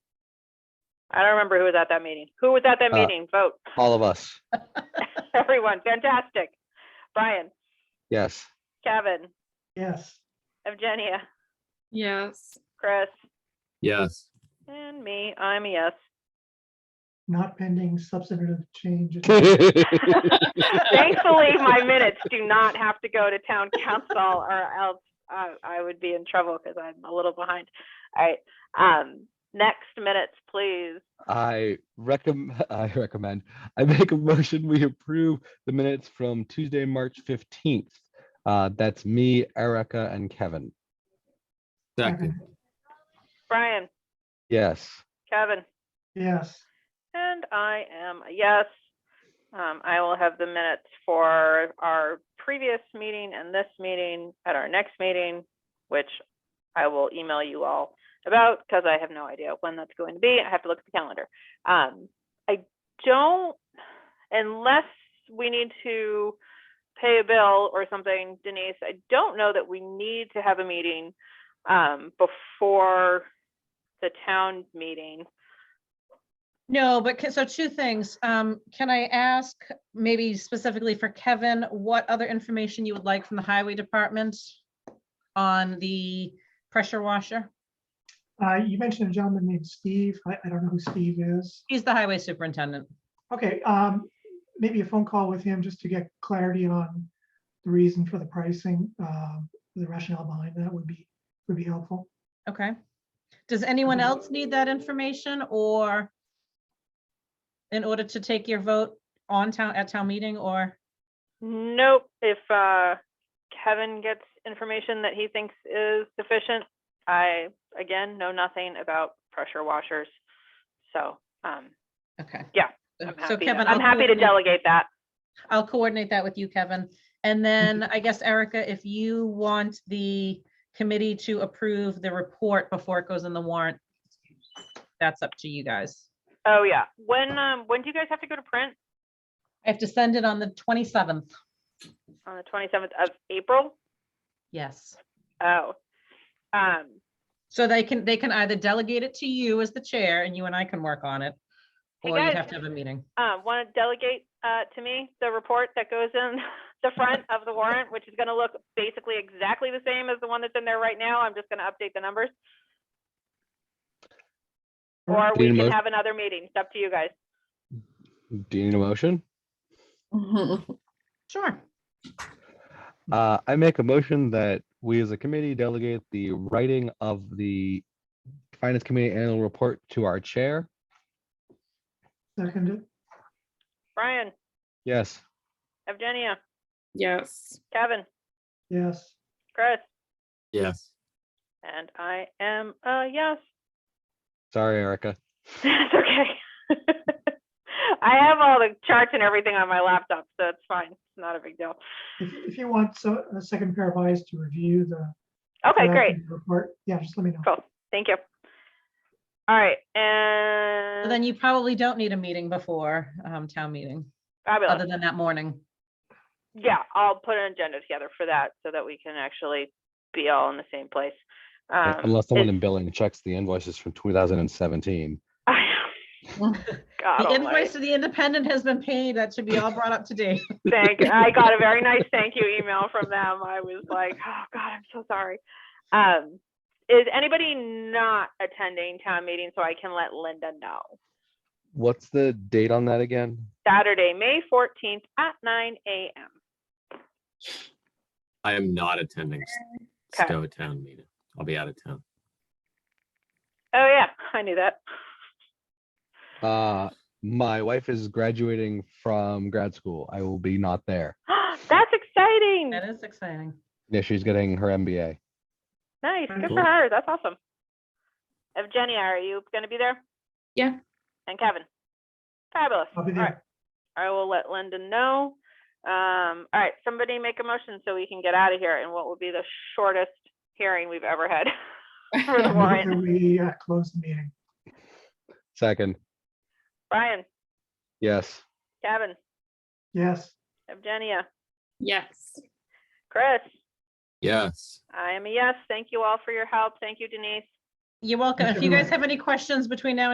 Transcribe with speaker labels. Speaker 1: I don't remember who was at that meeting. Who was at that
Speaker 2: Uh,
Speaker 1: meeting? Vote,
Speaker 2: All of us.
Speaker 1: everyone. Fantastic. Brian,
Speaker 2: Yes.
Speaker 1: Kevin,
Speaker 3: Yes.
Speaker 1: Evgenia,
Speaker 4: Yes.
Speaker 1: Chris,
Speaker 5: Yes.
Speaker 1: and me. I'm a yes.
Speaker 3: Not pending substantive changes.
Speaker 1: Thankfully, my minutes do not have to go to town council or else I, I would be in trouble because I'm a little behind. All right, um, next minutes, please.
Speaker 2: I recommend, I recommend, I make a motion, we approve the minutes from Tuesday, March fifteenth. Uh, that's me, Erica and Kevin.
Speaker 5: Second.
Speaker 1: Brian,
Speaker 2: Yes.
Speaker 1: Kevin,
Speaker 3: Yes,
Speaker 1: and I am a yes. Um, I will have the minutes for our previous meeting and this meeting at our next meeting, which I will email you all about because I have no idea when that's going to be. I have to look at the calendar. Um, I don't, unless we need to pay a bill or something, Denise, I don't know that we need to have a meeting um, before the town meeting.
Speaker 6: No, but ca- so two things. Um, can I ask maybe specifically for Kevin, what other information you would like from the highway department on the pressure washer?
Speaker 3: uh, you mentioned a gentleman named Steve. I, I don't know who Steve is.
Speaker 6: He's the highway superintendent.
Speaker 3: Okay, um, maybe a phone call with him just to get clarity on the reason for the pricing, um, the rationale behind that would be, would be helpful.
Speaker 6: Okay. Does anyone else need that information or in order to take your vote on town, at town meeting or?
Speaker 1: Nope, if uh, Kevin gets information that he thinks is sufficient, I, again, know nothing about pressure washers. So, um,
Speaker 6: Okay.
Speaker 1: Yeah,
Speaker 6: So-
Speaker 1: I'm
Speaker 6: So
Speaker 1: happy, to-
Speaker 6: Kevin.
Speaker 1: I'm
Speaker 6: I'll
Speaker 1: happy to
Speaker 6: coordinate-
Speaker 1: delegate that.
Speaker 6: I'll coordinate that with you, Kevin. And then I guess Erica, if you want the committee to approve the report before it goes in the warrant, that's up to you guys.
Speaker 1: Oh, yeah. When, um, when do you guys have to go to print?
Speaker 6: I have to send it on the 27th.
Speaker 1: On the twenty-seventh of April?
Speaker 6: Yes.
Speaker 1: Oh. Um,
Speaker 6: So they can, they can either delegate it to you as the chair and you and I can work on it.
Speaker 1: Hey,
Speaker 6: Or you
Speaker 1: guys.
Speaker 6: have to have a meeting.
Speaker 1: uh, want to delegate, uh, to me the report that goes in the front of the warrant, which is gonna look basically exactly the same as the one that's in there right now. I'm just gonna update the numbers. Or we
Speaker 2: Mm-hmm. Need a
Speaker 1: can
Speaker 2: mo-
Speaker 1: have another meeting. It's up to you guys.
Speaker 2: Do you need a motion?
Speaker 6: Sure.
Speaker 2: Uh, I make a motion that we as a committee delegate the writing of the Finance Committee Annual Report to our chair.
Speaker 3: Second,
Speaker 1: Brian,
Speaker 2: Yes.
Speaker 1: Evgenia,
Speaker 4: Yes.
Speaker 1: Kevin,
Speaker 3: yes,
Speaker 1: Chris,
Speaker 5: Yes.
Speaker 1: and I am a yes.
Speaker 2: Sorry, Erica.
Speaker 1: It's okay. I have all the charts and everything on my laptop, so it's fine. It's not a big deal.
Speaker 3: if, if you want so- a second pair of eyes to review the.
Speaker 1: Okay,
Speaker 3: draft
Speaker 1: great.
Speaker 3: of the Report, yeah, just let me know.
Speaker 1: Cool. Thank you. All right,
Speaker 6: So Then
Speaker 1: and
Speaker 6: you probably don't need a meeting before um, town meeting, other
Speaker 1: fabulous.
Speaker 6: than that morning.
Speaker 1: Yeah, I'll put an agenda together for that so that we can actually be all in the same place. Um,
Speaker 2: Unless someone
Speaker 1: is-
Speaker 2: in billing checks the invoices from two thousand and seventeen.
Speaker 1: God
Speaker 6: The
Speaker 1: almighty.
Speaker 6: invoice to the independent has been paid. That should be all brought up to date.
Speaker 1: Thank, I got a very nice thank you email from them. I was like, oh God, I'm so sorry. Um, is anybody not attending town meeting so I can let Linda know?
Speaker 2: What's the date on that again?
Speaker 1: Saturday, May fourteenth at nine AM.
Speaker 5: I am not attending
Speaker 1: Okay.
Speaker 5: Stowe Town meeting. I'll be out of town.
Speaker 1: Oh yeah, I knew that.
Speaker 2: Uh, my wife is graduating from grad school. I will be not there.
Speaker 1: That's exciting.
Speaker 6: That is exciting.
Speaker 2: Yeah, she's getting her MBA.
Speaker 1: Nice, good
Speaker 5: Cool.
Speaker 1: for her. That's awesome. Evgenia, are you gonna be there?
Speaker 4: Yeah.
Speaker 1: And Kevin? Fabulous.
Speaker 3: I'll be
Speaker 1: All right.
Speaker 3: there.
Speaker 1: I will let Linda know. Um, all right, somebody make a motion so we can get out of here in what will be the shortest hearing we've ever had. For the
Speaker 3: I move
Speaker 1: warrant.
Speaker 3: that We uh, close the meeting.
Speaker 2: Second,
Speaker 1: Brian,
Speaker 2: yes.
Speaker 1: Kevin,
Speaker 3: Yes,
Speaker 1: Evgenia,
Speaker 4: Yes.
Speaker 1: Chris,
Speaker 5: Yes.
Speaker 1: I am a yes. Thank you all for your help. Thank you, Denise.
Speaker 6: You're welcome.
Speaker 3: Thank
Speaker 6: If
Speaker 3: you
Speaker 6: you
Speaker 3: very
Speaker 6: guys have any questions between now and